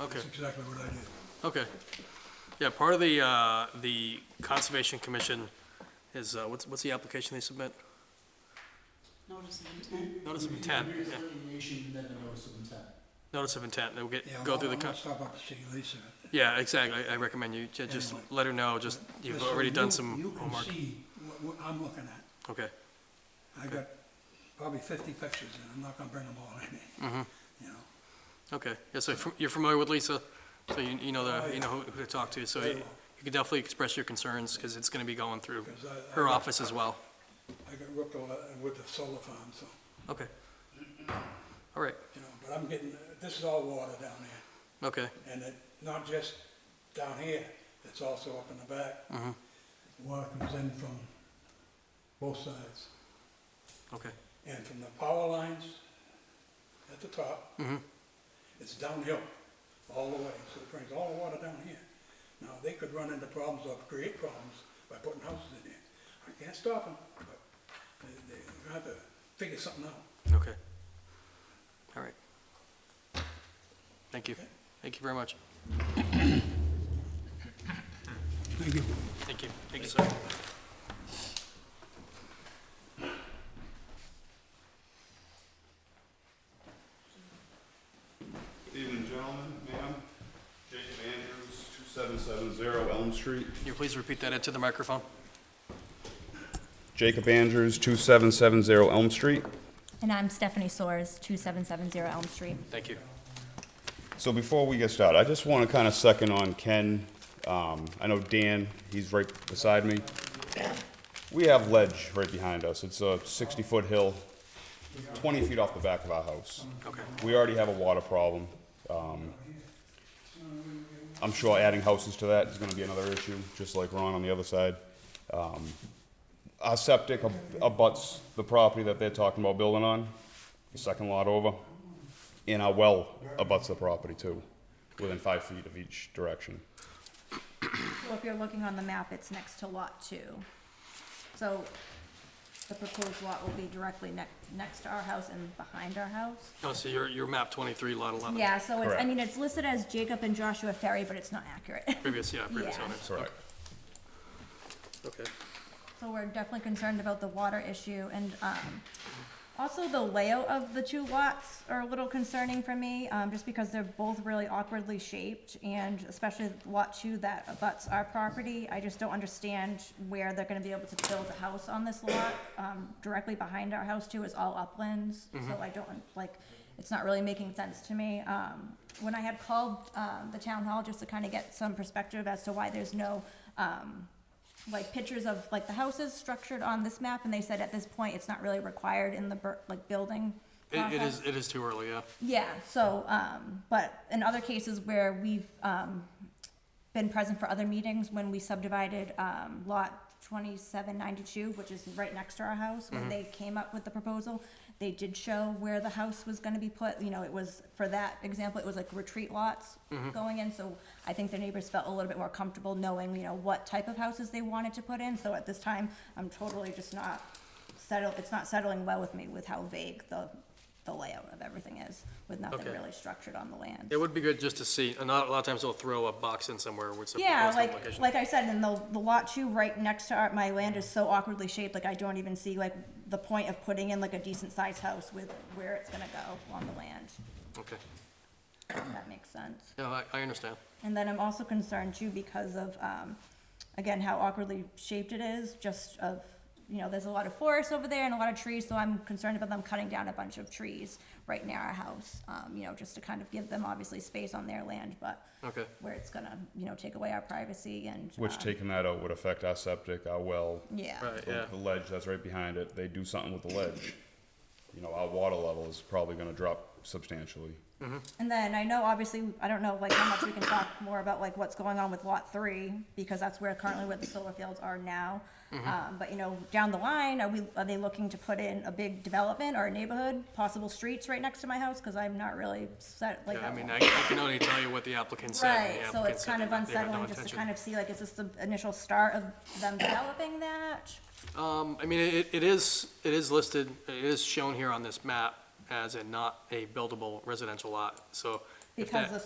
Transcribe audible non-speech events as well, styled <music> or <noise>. Okay, That's exactly what I did. okay. Yeah, part of the, uh, the Conservation Commission is, uh, what's, what's the application they submit? Notice of intent. Notice of intent, Here's yeah. delineation, then a notice of intent. Notice of intent, they'll get, Yeah, go I'll- through the, I'll con- stop up and see Lisa. yeah, exactly, I I recommend you, ju- just Anyway. let her know, just, you've Just so already done you- some homework. You can see what, what I'm looking at. Okay, I got probably fifty pictures, and I'm not gonna bring them all <laughs> in, Mm-hmm. you know. okay, yeah, so fr- you're familiar with Lisa, so you, you know Oh, the, yeah. you know who who to talk to, so you Very well. you can definitely express your concerns, because it's gonna be going through 'Cause I- I her got- office as well. I got ripped all that with the solar farm, so, Okay. All right, you know, but I'm getting, uh, this is all water down there. okay, And it, not just down here, it's also up in the back. Mm-hmm. Water comes in from both sides, okay, and from the power lines at the top. It's downhill all the way, so it brings all the water down here. Now, they could run into problems or create problems by putting houses in there. I can't stop them, but they, they have to figure something out. okay. All right. Thank you, thank you very much. Thank you. Thank you, thank you, sir. Evening, gentlemen, ma'am. Jacob Andrews, 2770 Elm Street. Can you please repeat that into the microphone? Jacob Andrews, 2770 Elm Street. And I'm Stephanie Soares, 2770 Elm Street. Thank you. So before we get started, I just want to kind of second on Ken. Um, I know Dan, he's right beside me. We have ledge right behind us. It's a 60-foot hill, 20 feet off the back of our house. Okay, We already have a water problem. Um, I'm sure adding houses to that is gonna be another issue, just like Ron on the other side. Um, Our septic ab- abuts the property that they're talking about building on, the second lot over. And our well abuts the property too, within five feet of each direction. Well, if you're looking on the map, it's next to lot two. So the proposed lot will be directly next, next to our house and behind our house. oh, so you're, you're map twenty-three, lot eleven? Yeah, so it's, I Correct. mean, it's listed as Jacob and Joshua Ferry, but it's not accurate. <laughs> Previous, yeah, previous Yeah. owners. Correct. Okay, So we're definitely concerned about the water issue and, um, also the layout of the two lots are a little concerning for me, um, just because they're both really awkwardly shaped and especially lot two that abuts our property. I just don't understand where they're gonna be able to build a house on this lot. Um, directly behind our house too is all uplands, so I don't, like, it's not really making sense to me. Um, when I had called, um, the town hall just to kind of get some perspective as to why there's no, um, like pictures of like the houses structured on this map, and they said at this point, it's not really required in the bur- like building it, it is, process. it is too early, yeah, Yeah, so, um, but in other cases where we've, um, been present for other meetings, when we subdivided, um, lot twenty-seven ninety-two, which is right next to our house, Mm-hmm. when they came up with the proposal, they did show where the house was gonna be put, you know, it was, for that example, it was like retreat lots Mm-hmm. going in, so I think the neighbors felt a little bit more comfortable knowing, you know, what type of houses they wanted to put in, so at this time, I'm totally just not settle, it's not settling well with me with how vague the, the layout of everything is, with nothing Okay. really structured on the land. it would be good just to see, and not, a lot of times they'll throw a box in somewhere with some Yeah, proposed like, application. like I said, and the, the lot two right next to our, my land is so awkwardly shaped, like I don't even see like the point of putting in like a decent sized house with where it's gonna go on the land, Okay, if that makes sense. yeah, I, I understand, And then I'm also concerned too because of, um, again, how awkwardly shaped it is, just of, you know, there's a lot of forest over there and a lot of trees, so I'm concerned about them cutting down a bunch of trees right near our house, um, you know, just to kind of give them obviously space on their land, but okay, where it's gonna, you know, take away our privacy and. Which um, taking that out would affect our septic, our well, Yeah. right, yeah, the the ledge that's right behind it. They do something with the ledge. You know, our water level is probably gonna drop substantially. And then I know, obviously, I don't know, like, how much we can talk more about, like, what's going on with Lot Three, because that's where currently where the solar fields are now. Mm-hmm. Um, but, you know, down the line, are we, are they looking to put in a big development or a neighborhood, possible streets right next to my house, cause I'm not really set, like. yeah, I that- mean, I, I can only tell you what the applicant said. and the Right, so applicant it's said kind of they had no unsettling just to intention. kind of see, like, is this the initial start of them developing that? Um, I mean, it, it is, it is listed, it is shown here on this map as a not a buildable residential lot, so. if Because that- the